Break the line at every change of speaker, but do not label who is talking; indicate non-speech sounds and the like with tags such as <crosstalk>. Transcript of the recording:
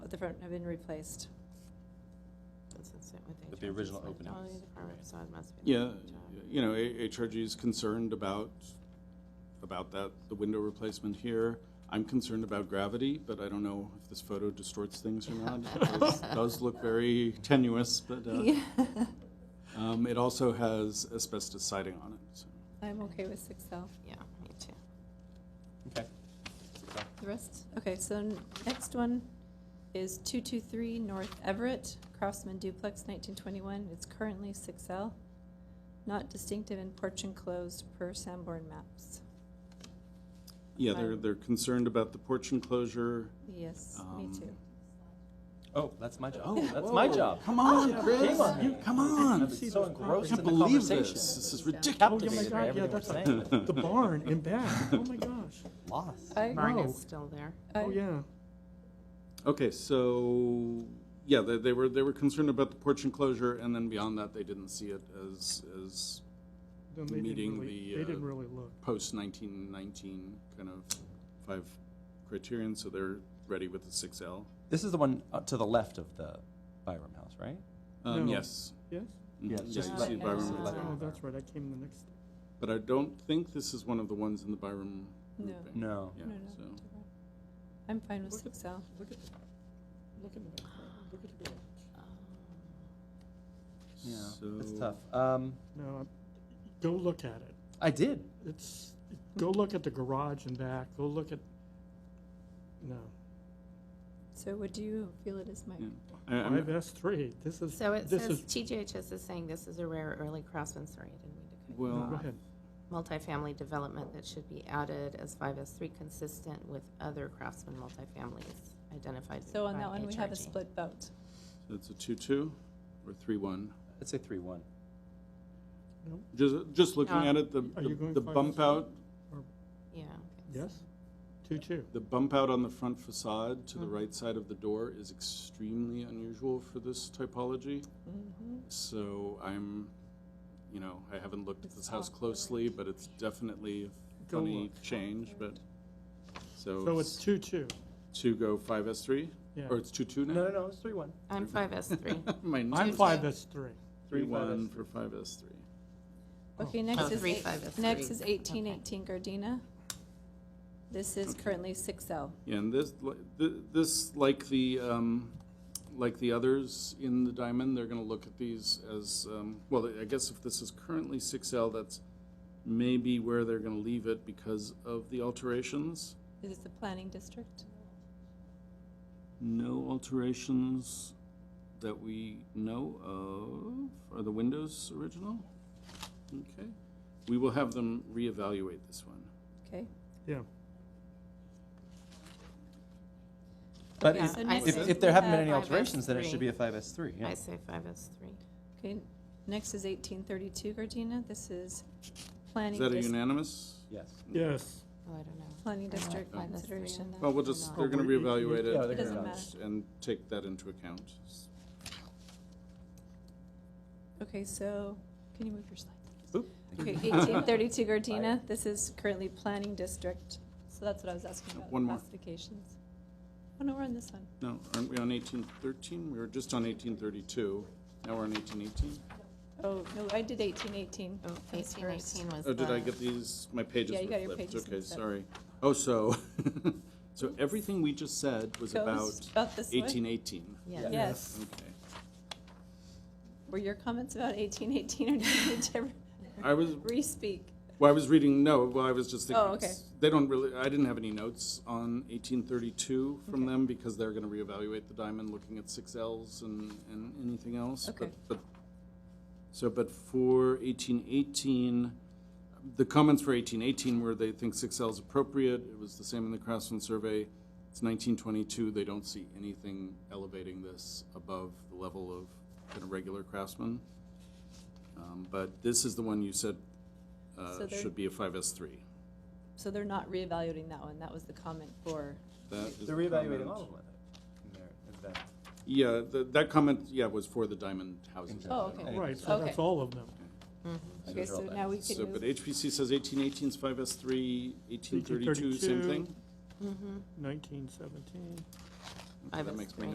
Oh, the front have been replaced.
But the original open house.
Yeah, you know, A- HRG is concerned about, about that, the window replacement here. I'm concerned about gravity, but I don't know if this photo distorts things or not. It does- does look very tenuous, but uh, um, it also has asbestos siding on it. so.
<laughs> I'm okay with six L.
Yeah, me too.
Okay. So,
The rest, okay, so n- next one is two-two-three North Everett, Craftsman duplex, nineteen twenty-one. It's currently six L. Not distinctive and porch enclosed per Sanborn maps.
Yeah, they're,
Fine.
they're concerned about the porch enclosure.
Yes, me
Um,
too.
Oh, that's my job.
Oh,
That's my
whoa.
job.
Come on, Chris,
Shame on
You-
me.
come on.
I've been so
I
engrossed
can't
in the
believe
conversation.
this. This is ridiculous.
Captivated by
yeah,
everything we're
that's like-
saying.
The barn in back, oh my <laughs> gosh.
Lost.
I-
Barn
Wow.
is still there.
I-
Oh, yeah.
Okay, so, yeah, they, they were, they were concerned about the porch enclosure, and then beyond that, they didn't see it as, as
Then they
Meeting
didn't really,
the,
they
uh,
didn't really look.
post nineteen nineteen kind of five criterion, so they're ready with the six L.
This is the one uh, to the left of the Byram house, right?
Um,
No.
yes.
Yes?
Mhm,
Yeah,
yeah,
just
you
like-
see the
Yeah,
Byram
so
roof
like-
there.
Oh, that's right, I came the next,
But I don't think this is one of the ones in the Byram
No.
roofing.
No.
Yeah,
No, no,
so,
different. I'm fine with
Look at-
six L.
Oh, look at, look at the back, look at the garage.
Yeah. It's
so-
tough. Um,
No, I'm- go look at it.
I did.
It's, go look at the garage in back, go look at, no.
So what do you feel it is, Mike?
Yeah. I,
Five
I'm,
S three, this is,
So it
this
says,
is,
TGHS is saying this is a rare early craftsman, sorry, I didn't mean to cut you
Well-
no,
off.
go ahead.
multifamily development that should be added as 5S3 consistent with other craftsman multifamilies identified.
So on
by
that one, we have a
HRG.
split vote.
so it's a two-two or three-one.
I'd say three one.
Just, just looking
Uh,
Yeah.
at it, the,
Are you
the-
going
the
five
bump
S one?
out,
Yeah. okay.
Yes? Two, two.
The bump out on the front facade to the
Mm-hmm.
right side of the door is extremely unusual for this typology.
Mm-hmm.
So I'm, you know, I haven't looked at this house closely, but it's definitely a
Go
funny
look.
change, but,
So
so
it's two, two,
two go five S three?
yeah.
Or it's two two
No, no,
now?
no. It's three one.
I'm
<laughs>
5S3.
My
I'm
notes.
five S three.
Three
Three
five
one
S
for five S three.
Okay, next
Oh,
is,
three,
eight-
five, that's
next
three.
is eighteen
Okay.
eighteen Gardena. This is currently six L.
Yeah, and this, li- th- this, like the, um, like the others in the diamond, they're gonna look at these as, um, well, I guess if this is currently six L, that's maybe where they're gonna leave it because of the alterations.
Is it the planning district?
No alterations that we know of. Are the windows original? Okay. We will have them reevaluate this one.
Okay,
Yeah,
But
Yeah,
is-
so
I
next
if,
is
say-
if there haven't been any
Uh,
alterations, then it should
5S3.
be a five S three.
I
<laughs> Yeah.
say 5S3.
okay, next is eighteen thirty-two Gardena. This is planning
Is that a
dis-
unanimous?
Yes.
yes.
Oh, I don't know.
planning
They're not
district
five, that's three.
consideration.
Well, we'll
Or
just,
not.
they're gonna
Oh, we- we-
reevaluate
yeah,
it
they're
gonna-
and- and take that into account. Oh.
Okay, so, can you move your slide?
Oop.
Okay,
<laughs>
eighteen thirty-two Gardena. This is currently planning district. So that's what I was asking about,
One more.
classifications. Oh, no, we're on this one.
No, aren't we on eighteen thirteen? We were just on eighteen thirty-two. Now we're on eighteen eighteen.
Oh, no, I did eighteen eighteen.
Oh, 1818 was
Oh, did I
the-
get these? My pages
Yeah, you got your
were flipped.
pages
Okay,
mixed up.
sorry. Oh, so, <laughs> so everything we just said was about
About this one?
eighteen eighteen.
Yeah.
Yes.
Okay.
Were your comments about eighteen eighteen or did <laughs> you need to
I was,
re-speak?
well, I was reading, no, well, I was just thinking.
Oh, okay.
it's- They don't really, I didn't have any notes on eighteen thirty-two from them because they're gonna reevaluate the diamond, looking at six Ls and, and anything else. but-
Okay.
But, so, but for eighteen eighteen, the comments for eighteen eighteen were they think six L is appropriate, it was the same in the Craftsman survey. It's nineteen twenty-two, they don't see anything elevating this above the level of kind of regular craftsman. Um, but this is the one you said,
So
uh,
they're-
should be a five S three.
So they're not reevaluating that one, that was the comment for,
That is
They're
the
reevaluating
comment.
all of them. I think, in there, in that.
Yeah, the, that comment, yeah, was for the diamond houses.
Oh, okay.
Anything.
Right, so
Okay.
that's all of them.
Mm-hmm.
okay, so now we can
So, but
move,
HPC says eighteen eighteen is five S three, eighteen thirty-two, same
1832.
Mm-hmm.
thing?
Nineteen seventeen.
Okay, that makes
5S3.
more